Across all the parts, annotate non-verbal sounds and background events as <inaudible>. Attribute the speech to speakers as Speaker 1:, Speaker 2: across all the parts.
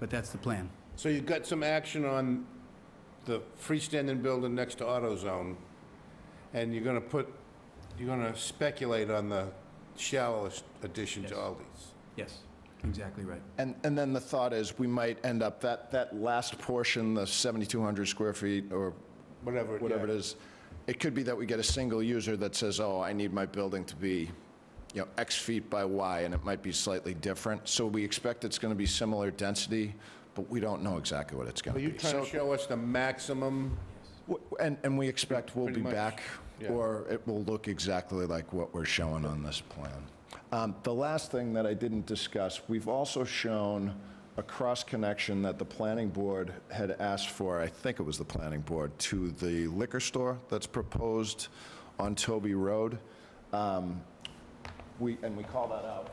Speaker 1: but that's the plan.
Speaker 2: So you've got some action on the freestanding building next to AutoZone, and you're gonna put, you're gonna speculate on the shallowest addition to
Speaker 1: Yes.
Speaker 2: Aldi's.
Speaker 1: Yes, exactly right.
Speaker 3: And, and then the thought is, we might end up, that, that last portion, the 7,200 square feet or
Speaker 2: Whatever.
Speaker 3: whatever it
Speaker 2: yeah.
Speaker 3: is, it could be that we get a single user that says, oh, I need my building to be, you know, X feet by Y, and it might be slightly different. So we expect it's going to be similar density, but we don't know exactly what it's going
Speaker 2: Are
Speaker 3: to
Speaker 2: you
Speaker 3: be.
Speaker 2: trying to
Speaker 3: So-
Speaker 2: show us the maximum?
Speaker 3: w- And, and we expect we'll
Speaker 2: Pretty
Speaker 3: be
Speaker 2: much,
Speaker 3: back,
Speaker 2: yeah.
Speaker 3: or it will look exactly like what we're showing on this plan. Um, The last thing that I didn't discuss, we've also shown a cross-connection that the planning board had asked for, I think it was the planning board, to the liquor store that's proposed on Toby Road. Um, We, and we call that out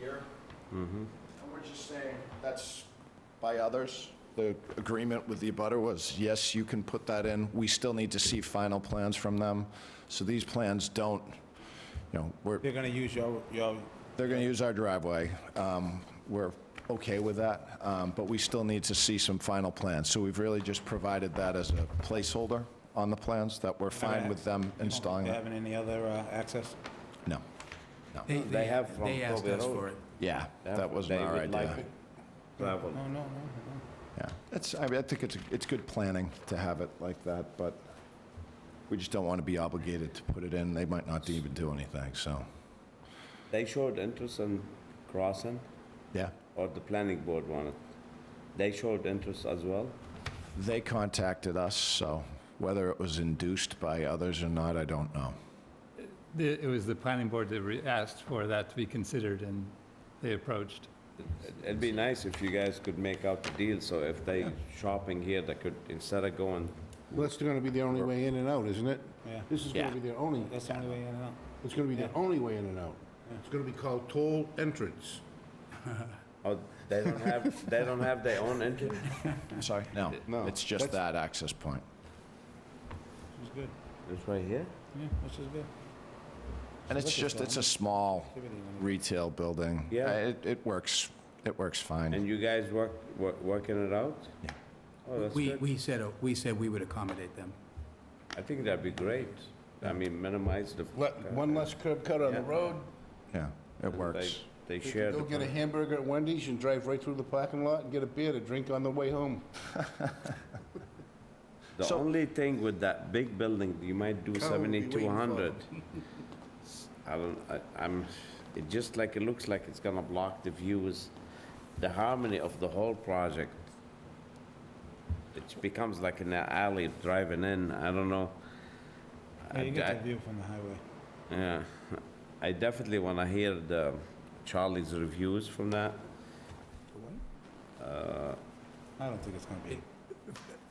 Speaker 3: here. And we're just saying, that's by others. The agreement with the abutter was, yes, you can put that in. We still need to see final plans from them. So these plans don't, you know, we're,
Speaker 4: They're gonna use your, your,
Speaker 3: they're going to use our driveway. Um, We're okay with that, um, but we still need to see some final plans. So we've really just provided that as a placeholder on the plans, that we're fine with them installing
Speaker 4: you
Speaker 3: it.
Speaker 4: having any other uh, access?
Speaker 3: No, no.
Speaker 5: They have from
Speaker 1: They asked
Speaker 5: Toby
Speaker 1: us
Speaker 5: Road.
Speaker 1: for it.
Speaker 3: Yeah, that wasn't
Speaker 5: They
Speaker 3: our
Speaker 5: would like
Speaker 3: idea.
Speaker 5: to Travel.
Speaker 4: Oh, No, no, no.
Speaker 3: Yeah, it's, I mean, I think it's, it's good planning to have it like that, but we just don't want to be obligated to put it in. They might not even do anything, so,
Speaker 5: They showed interest in crossing,
Speaker 3: yeah.
Speaker 5: or the planning board wanted. They showed interest as well.
Speaker 3: They contacted us, so whether it was induced by others or not, I don't know.
Speaker 6: The- It was the planning board that re- asked for that to be considered, and they approached.
Speaker 5: It'd be nice if you guys could make out the deal, so if they shopping here, they could, instead of going,
Speaker 2: Well, that's gonna be the only way in and out, isn't it?
Speaker 4: Yeah.
Speaker 2: This is gonna be their only,
Speaker 4: That's the only way in and out.
Speaker 2: it's gonna be their only way in and out. It's gonna be called toll entrance.
Speaker 5: oh, they
Speaker 2: <laughs>
Speaker 5: don't have, they don't have their own interest?
Speaker 3: I'm sorry? No,
Speaker 2: No,
Speaker 3: it's just that access point.
Speaker 4: It's good.
Speaker 5: It's right here?
Speaker 4: Yeah, which is good.
Speaker 3: And it's just, it's a small retail building.
Speaker 5: Yeah.
Speaker 3: Uh, It, it works, it works fine.
Speaker 5: And you guys work, wor- working it out?
Speaker 3: Yeah.
Speaker 5: Oh, that's
Speaker 1: We,
Speaker 5: good.
Speaker 1: we said, uh, we said we would accommodate them.
Speaker 5: I think that'd be great. I mean, minimize the.
Speaker 2: Let, one less curb cut on the
Speaker 5: Yeah.
Speaker 2: road.
Speaker 3: Yeah, it works.
Speaker 5: They
Speaker 2: They
Speaker 5: share
Speaker 2: can go
Speaker 5: the.
Speaker 2: get a hamburger at Wendy's and drive right through the parking lot and get a beer to drink on the way home.
Speaker 5: The only thing with that big building, you might do
Speaker 2: Carl will be waiting for
Speaker 5: seventy-two hundred. I don't, I, I'm, it just like, it looks like it's gonna block the views, the harmony of the whole project. It becomes like an alley driving in, I don't know.
Speaker 4: Yeah,
Speaker 5: I-
Speaker 4: you get
Speaker 5: I-
Speaker 4: that view from the highway.
Speaker 5: yeah, I definitely want to hear the Charlie's reviews from that.
Speaker 4: I don't think it's gonna be.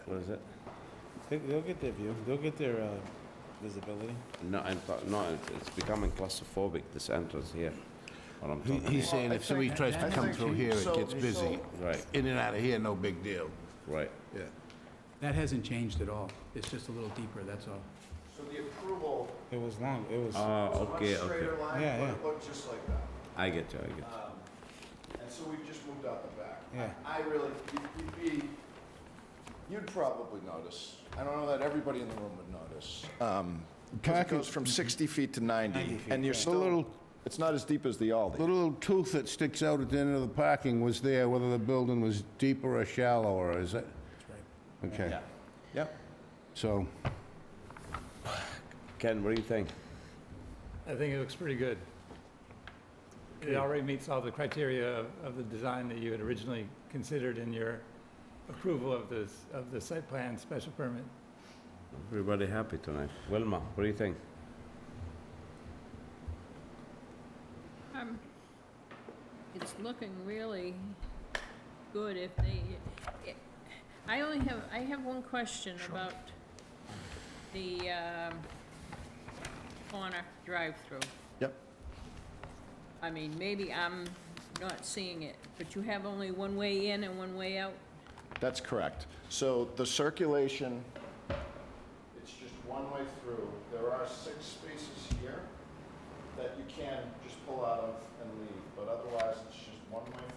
Speaker 5: What is it?
Speaker 4: They- They'll get their view, they'll get their uh, visibility.
Speaker 5: No, I'm, ta- no, it's- it's becoming claustrophobic, this entrance here, what I'm
Speaker 2: He-
Speaker 5: talking
Speaker 2: He's saying if somebody tries to come through here, it gets busy.
Speaker 5: Right.
Speaker 2: In and out of here, no big deal.
Speaker 5: Right.
Speaker 2: Yeah.
Speaker 1: That hasn't changed at all. It's just a little deeper, that's all.
Speaker 3: So the approval,
Speaker 4: It was long, it was,
Speaker 5: Oh, okay,
Speaker 3: line,
Speaker 5: okay.
Speaker 4: Yeah, but yeah. it
Speaker 3: looked just like that.
Speaker 5: I get you, I get you.
Speaker 3: And so we've just moved out the back.
Speaker 4: Yeah.
Speaker 3: I I really, you'd- you'd be, you'd probably notice. I don't know that everybody in the room would notice. Um, Because it goes from 60 feet to 90, and you're
Speaker 2: A
Speaker 3: still,
Speaker 2: little-
Speaker 3: it's not as deep as the
Speaker 2: The
Speaker 3: Aldi.
Speaker 2: little tooth that sticks out at the end of the parking was there, whether the building was deeper or shallower, is it? That's right. Okay,
Speaker 3: Yep.
Speaker 2: so,
Speaker 5: Ken, what do you think?
Speaker 6: I think it looks pretty good. It already meets all the criteria of, of the design that you had originally considered in your approval of this, of the site plan special permit.
Speaker 5: Everybody happy tonight? Wilma, what do you think?
Speaker 7: Um, It's looking really good if they, it- I only have, I have one question about the um, corner drive-through.
Speaker 3: Yep.
Speaker 7: I mean, maybe I'm not seeing it, but you have only one way in and one way out?
Speaker 3: That's correct. So the circulation, it's just one way through. There are six spaces here that you can just pull out of and leave, but otherwise it's just one way